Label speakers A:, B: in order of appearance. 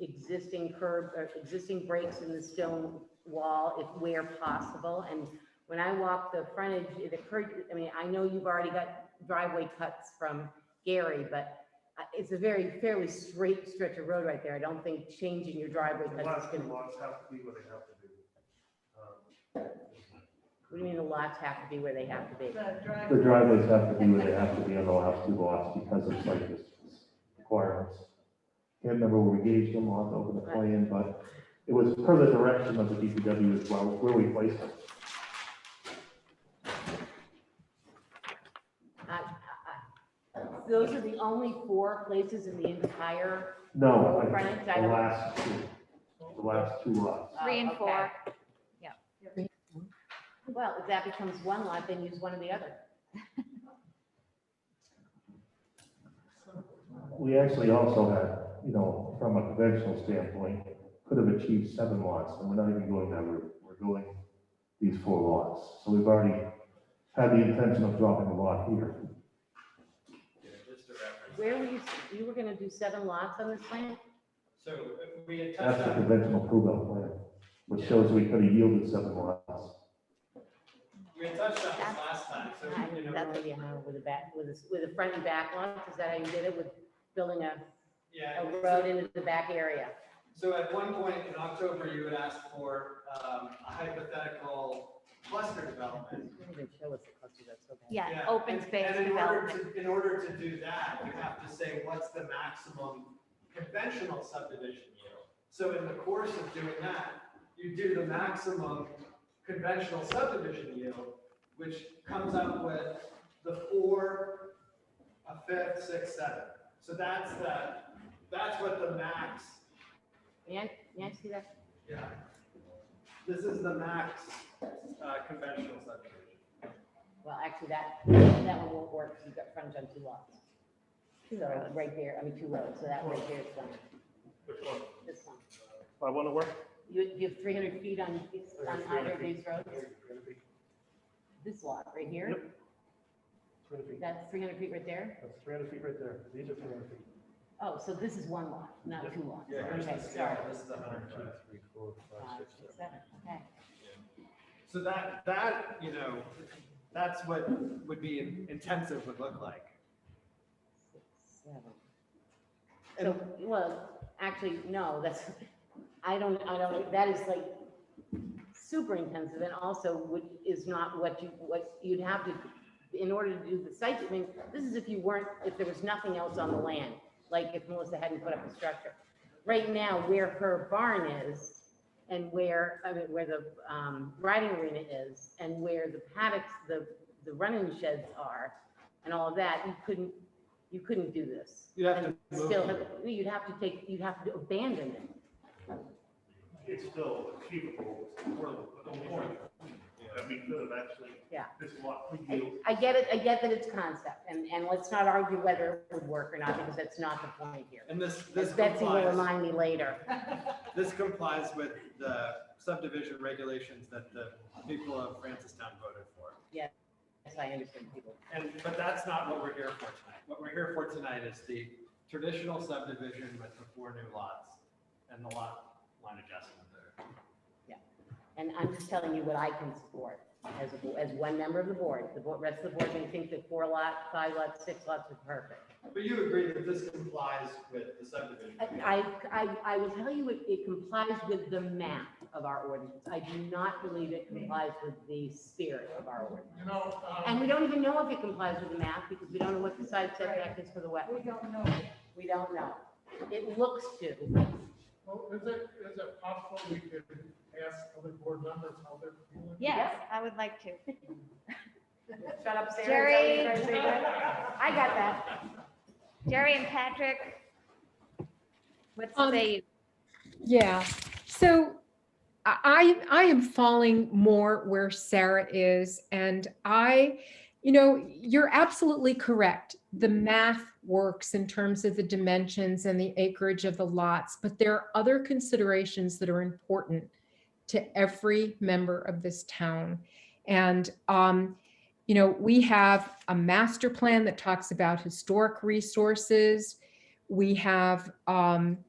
A: existing curb, or existing breaks in the stone wall if where possible. And when I walk the frontage, it occurred, I mean, I know you've already got driveway cuts from Gary, but uh, it's a very fairly straight stretch of road right there. I don't think changing your driveway
B: The
A: cuts is
B: last two
A: gonna, what
B: lots have to be what they have to be. Um,
A: do you mean the lots have to be where they have to be?
C: The
D: The
C: driveway.
D: driveways have to be where they have to be on the last two lots because of site distance requirements. Can't remember where we gauged them, I'll have to open the plan, but it was per the direction of the DPW as well, where we placed them.
A: Those are the only four places in the entire,
D: No, I-
A: Frontage, I
D: the
A: don't-
D: last two, the last two lots.
A: uh,
E: Three and four.
A: okay. Well, if that becomes one lot, then use one or the other.
D: We actually also had, you know, from a conventional standpoint, could have achieved seven lots, and we're not even going that route. We're going these four lots. So we've already had the intention of dropping a lot here.
F: Yeah, just a reference.
A: Where were you, you were gonna do seven lots on this plan?
F: So uh, we had
D: That's
F: touched
D: the
F: on,
D: conventional prove-out plan, which shows we could have yielded seven lots.
F: we had touched on this last time, so,
A: I-
F: you know,
A: That's what you have with a back, with a, with a front and back lot, is that how you did it, with building a,
F: yeah.
A: a
F: and
A: road into the back area?
F: So at one point in October, you had asked for um, a hypothetical cluster development.
A: They didn't show us the cluster, that's so bad.
E: Yeah, open
F: and-
E: space
F: and in order
E: development.
F: to- In order to do that, you have to say, what's the maximum conventional subdivision yield? So in the course of doing that, you do the maximum conventional subdivision yield, which comes up with the four, a fifth, six, seven. So that's the, that's what the max,
A: May I, may I see that?
F: yeah. This is the max uh, conventional subdivision.
A: Well, actually, that, that one won't work, because you've got frontage on two lots. Two roads, right there, I mean, two roads, so that right there is one,
B: Which one?
A: this one.
D: I want to work.
A: You, you have three hundred feet on, each- on either of these roads,
B: It's gonna be-
A: this lot right here,
B: Yep. it's gonna be-
A: that's three hundred feet right there.
B: That's three hundred feet right there. These are three hundred feet.
A: Oh, so this is one lot, not two lots.
F: Yeah, here's
A: Okay,
F: the
A: sorry.
F: scale, this is the hundred and five.
B: three, four,
A: Five, six, seven, okay.
F: So that, that, you know, that's what would be intensive would look like.
A: Six, seven. So,
F: And-
A: well, actually, no, that's, I don't, I don't, that is like super intensive and also would, is not what you, what you'd have to, in order to do the site, I mean, this is if you weren't, if there was nothing else on the land, like if Melissa hadn't put up a structure. Right now, where her barn is and where, I mean, where the, um, riding arena is and where the paddocks, the, the running sheds are and all of that, you couldn't, you couldn't do this.
F: You'd have to
A: And
F: move
A: Still,
F: it.
A: have- you'd have to take, you'd have to abandon it.
B: It's still achievable, it's affordable, but the point, that we could have actually.
A: Yeah.
B: This lot, we yield,
A: I get it, I get that it's concept, and, and let's not argue whether it would work or not, because that's not the point here.
F: And this,
A: As
F: this
A: Betsy will
F: complies,
A: remind me later.
F: this complies with the subdivision regulations that the people of Francistown voted for.
A: Yes, I understand people.
F: And, but that's not what we're here for tonight. What we're here for tonight is the traditional subdivision with the four new lots and the lot line adjustment there.
A: And I'm just telling you what I can support as, a bo- as one member of the board. The bo- rest of the board may think that four lot, five lots, six lots are perfect.
F: But you agree that this complies with the subdivision?
A: I, I, I will tell you, it- it complies with the map of our ordinance. I do not believe it complies with the spirit of our ordinance.
C: You know,
A: And we
C: um,
A: don't even know if it complies with the map, because we don't know what the side setback is for the wet.
C: we don't know.
A: We don't know. It looks to,
C: Well, is it, is it possible we could ask other board members how they're feeling?
E: Yes, I would like to.
A: shut up, Sarah.
E: Jerry,
A: is that what you're trying to say, Brad?
E: I got that. Jerry and Patrick, what's
G: Um,
E: the,
G: Yeah, so I, I I am falling more where Sarah is and I, you know, you're absolutely correct. The math works in terms of the dimensions and the acreage of the lots, but there are other considerations that are important to every member of this town. And, um, you know, we have a master plan that talks about historic resources. We have, um,